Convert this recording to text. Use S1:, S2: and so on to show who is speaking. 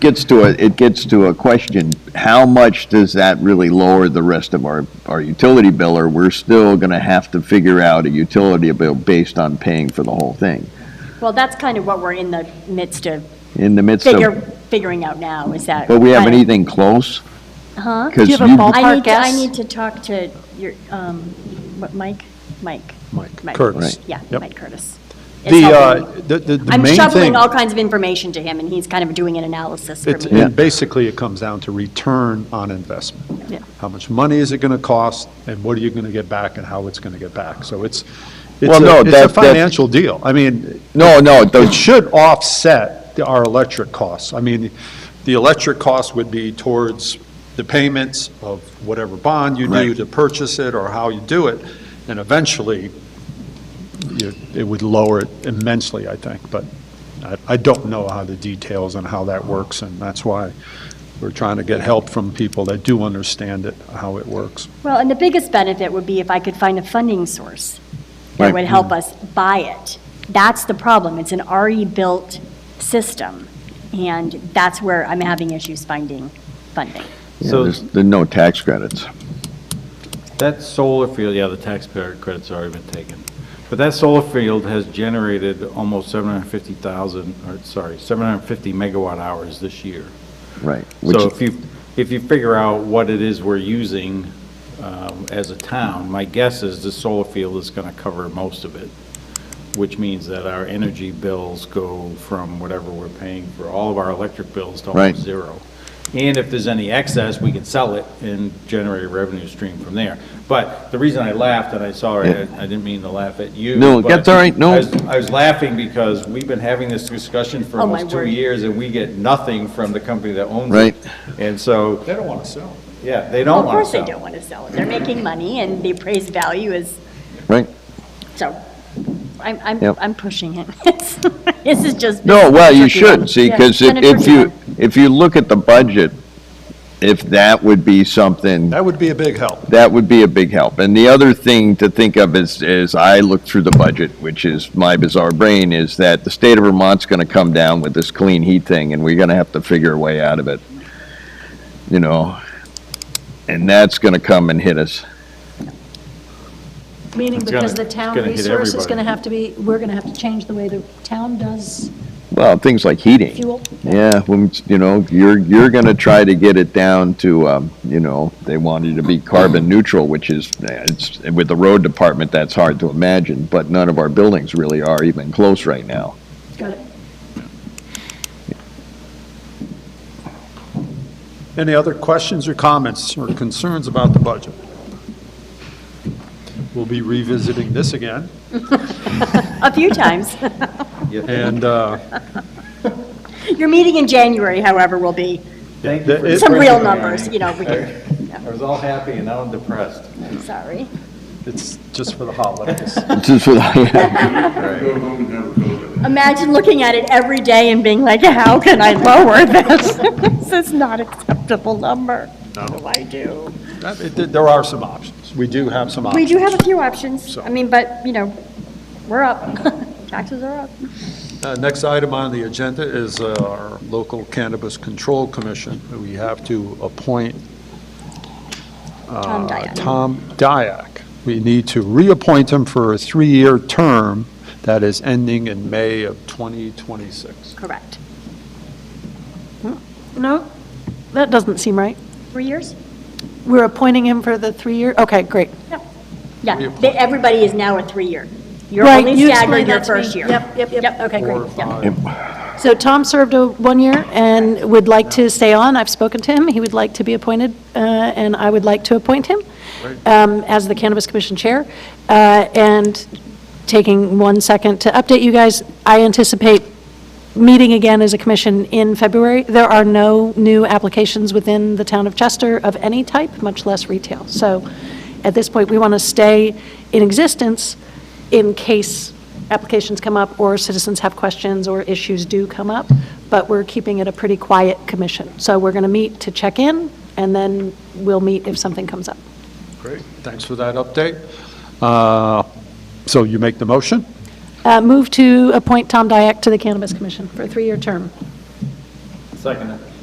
S1: gets to a, it gets to a question, how much does that really lower the rest of our, our utility bill? Or we're still gonna have to figure out a utility bill based on paying for the whole thing?
S2: Well, that's kind of what we're in the midst of
S1: In the midst
S2: figure,
S1: of,
S2: figuring out now, is that.
S1: but we have
S2: kind of-
S1: anything close?
S2: Huh?
S1: Because
S3: Do you have a ball-
S2: I
S3: Ballpark
S2: need, to- I
S3: guess?
S2: need to talk to your, um, what, Mike? Mike.
S4: Mike Curtis.
S2: Yeah,
S4: Yep.
S2: Mike Curtis. It's
S4: The,
S2: helping.
S4: uh, the, the the main thing.
S2: I'm shoveling all kinds of information to him, and he's kind of doing an analysis for
S4: It's,
S2: me.
S4: and basically, it comes down to return on investment.
S2: Yeah.
S4: How much money is it going to cost, and what are you going to get back, and how it's going to get back? So it's, it's
S1: Well, no,
S4: a, it's
S1: that-
S4: a
S1: that-
S4: financial deal. I mean,
S1: No, no,
S4: it should offset the- our electric costs. I mean, the electric cost would be towards the payments of whatever bond you do
S1: Right.
S4: to purchase it, or how you do it, and eventually, you- it would lower it immensely, I think, but I- I don't know how the details and how that works, and that's why we're trying to get help from people that do understand it, how it works.
S2: Well, and the biggest benefit would be if I could find a funding source that
S1: Right.
S2: would help us buy it. That's the problem. It's an already built system, and that's where I'm having issues finding funding.
S1: Yeah,
S5: So-
S1: there's, there's no tax credits.
S5: That solar field, yeah, the taxpayer credit's already been taken. But that solar field has generated almost 750,000, or sorry, 750 megawatt hours this year.
S1: Right. Which,
S5: So if you, if you figure out what it is we're using um, as a town, my guess is the solar field is going to cover most of it, which means that our energy bills go from whatever we're paying for all of our electric bills to
S1: Right.
S5: almost zero. And if there's any excess, we can sell it and generate a revenue stream from there. But the reason I laughed, and I, sorry, I I didn't mean to laugh at you.
S1: No,
S5: but
S1: that's all right. No.
S5: I was- I was laughing because we've been having this discussion for
S2: Oh, my
S5: almost two
S2: word.
S5: years, and we get nothing from the company that owns it.
S1: Right.
S5: And so,
S4: They don't want to sell.
S5: yeah, they don't
S2: Of
S5: want
S2: course
S5: to
S2: they
S5: sell.
S2: don't want to sell it. They're making money, and the appraised value is,
S1: right?
S2: so, I'm, I'm,
S1: Yep.
S2: I'm pushing it. This is just.
S1: No, well, you
S2: tricky one.
S1: should, see,
S2: Yeah,
S1: because
S2: it's been a
S1: if
S2: tricky
S1: you,
S2: one.
S1: if you look at the budget, if that would be something
S4: That would be a big help.
S1: that would be a big help. And the other thing to think of is, is I look through the budget, which is my bizarre brain, is that the state of Vermont's gonna come down with this clean heat thing, and we're gonna have to figure a way out of it. You know, and that's gonna come and hit us.
S3: Meaning
S5: It's gonna-
S3: because the
S5: it's
S3: town
S5: gonna hit
S3: resource is
S5: everybody.
S3: going to have to be, we're going to have to change the way the town does
S1: Well, things like heating.
S3: fuel.
S1: Yeah, when, you know, you're, you're gonna try to get it down to, um, you know, they want you to be carbon neutral, which is, eh, it's, with the road department, that's hard to imagine, but none of our buildings really are even close right now.
S3: Got it.
S4: Any other questions or comments or concerns about the budget? We'll be revisiting this again,
S2: A few times.
S4: and uh,
S2: Your meeting in January, however, will be
S5: Thank you for
S4: It-
S2: some real
S5: bringing it.
S2: numbers, you know, we can,
S5: I was all happy and now I'm depressed.
S2: I'm sorry.
S4: it's just for the holidays.
S1: It's just what I-
S2: Imagine looking at it every day and being like, how can I lower this? This is not acceptable number. What do I do?
S4: That- it- There are some options. We do have some
S2: We
S4: options.
S2: do have a few options.
S4: So-
S2: I mean, but, you know, we're up. Taxes are up.
S4: Uh, Next item on the agenda is uh, our local cannabis control commission. We have to appoint
S2: Tom
S4: uh,
S2: Dyak.
S4: Tom Dyak. We need to reappoint him for a three-year term that is ending in May of 2026.
S2: Correct.
S3: No, that doesn't seem right.
S2: Three years?
S3: We're appointing him for the three-year, okay, great.
S2: Yeah,
S4: Reappoint.
S2: they- everybody is now a three-year. You're
S3: Right,
S2: only
S3: you explained
S2: staggered your
S3: that to me.
S2: first year.
S3: Yep, yep, yep, okay,
S4: Four,
S3: great.
S4: five,
S3: So Tom served a one year and would like to stay on. I've spoken to him. He would like to be appointed, uh, and I would like to appoint him um, as the Cannabis Commission Chair. Uh, And taking one second to update you guys, I anticipate meeting again as a commission in February. There are no new applications within the town of Chester of any type, much less retail. So at this point, we want to stay in existence in case applications come up or citizens have questions or issues do come up, but we're keeping it a pretty quiet commission. So we're going to meet to check in, and then we'll meet if something comes up.
S4: Great, thanks for that update. Uh, So you make the motion?
S3: Uh, Move to appoint Tom Dyak to the Cannabis Commission for a three-year term.
S5: Second.